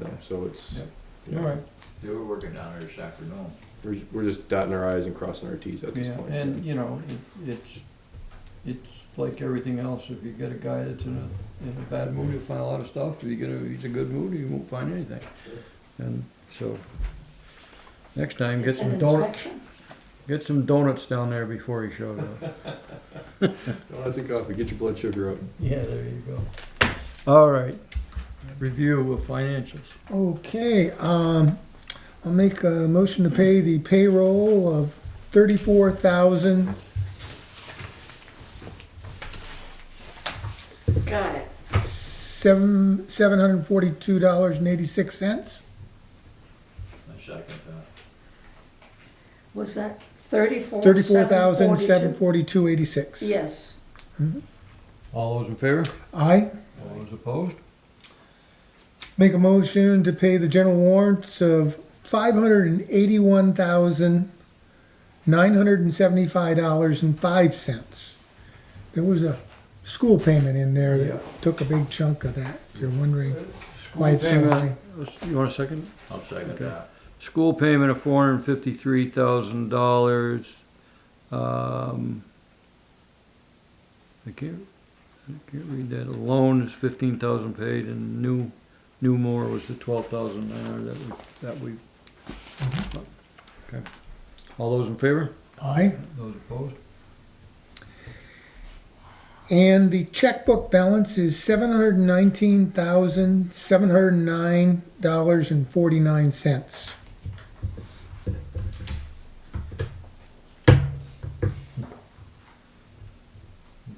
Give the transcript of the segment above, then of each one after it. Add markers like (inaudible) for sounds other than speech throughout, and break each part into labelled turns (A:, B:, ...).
A: time, so it's,
B: Yep.
A: yeah,
B: All right.
C: They were working down there this afternoon.
A: we're, ju- we're just dotting our i's and crossing our t's at this
B: Yeah,
A: point.
B: and, you know, it, it's, it's like everything else, if you get a guy that's in a, in a bad mood, he'll find a lot of stuff, if you get a, he's in a good mood, he won't find anything. And so, next time, get some donuts, get some donuts down there before he shows up.
A: Lots of coffee, uh, get your blood sugar up.
B: (laughs) Yeah, there you go. All right, review of financials.
D: Okay, um, I'll make a motion to pay the payroll of thirty-four thousand,
E: Got it.
D: seven, seven hundred and forty-two dollars and eighty-six cents.
C: I second that.
E: Was that thirty-four?
D: Thirty-four thousand, seven
E: 742?
D: forty-two, eighty-six.
E: Yes.
B: All those in favor?
D: I
B: All those opposed?
D: make a motion to pay the general warrants of five hundred and eighty-one thousand, nine hundred and seventy-five dollars and five cents. There was a school payment in there
B: Yeah.
D: that took a big chunk of that, if you're wondering. Why it's so
B: School
D: high.
B: payment, You want a second?
C: I'll second
B: Okay.
C: that.
B: School payment of four hundred and fifty-three thousand dollars. Um, I can't, I can't read that. A loan is fifteen thousand paid and new, new more was the twelve thousand nine hundred that we, that we. Mm-hmm. Okay. All those in favor?
D: Aye.
B: Those opposed?
D: And the checkbook balance is seven hundred nineteen thousand, seven hundred nine dollars and forty-nine cents.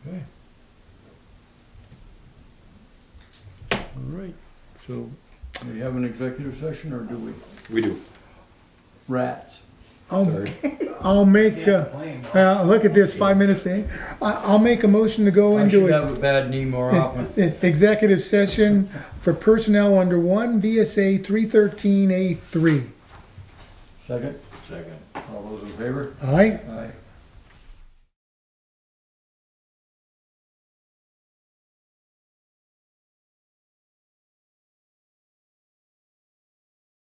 B: Okay. All right, so we have an executive session or do we?
A: We do,
B: Rats.
D: I'll,
A: sorry.
D: I'll make, uh, uh, look at this, five minutes, eh? I, I'll make a motion to go
B: I
D: into
B: should
D: it.
B: have a bad knee more often.
D: (laughs) Executive session for personnel under one VSA three thirteen A three.
B: Second,
C: Second.
B: all those in favor?
D: All right,
B: Aye.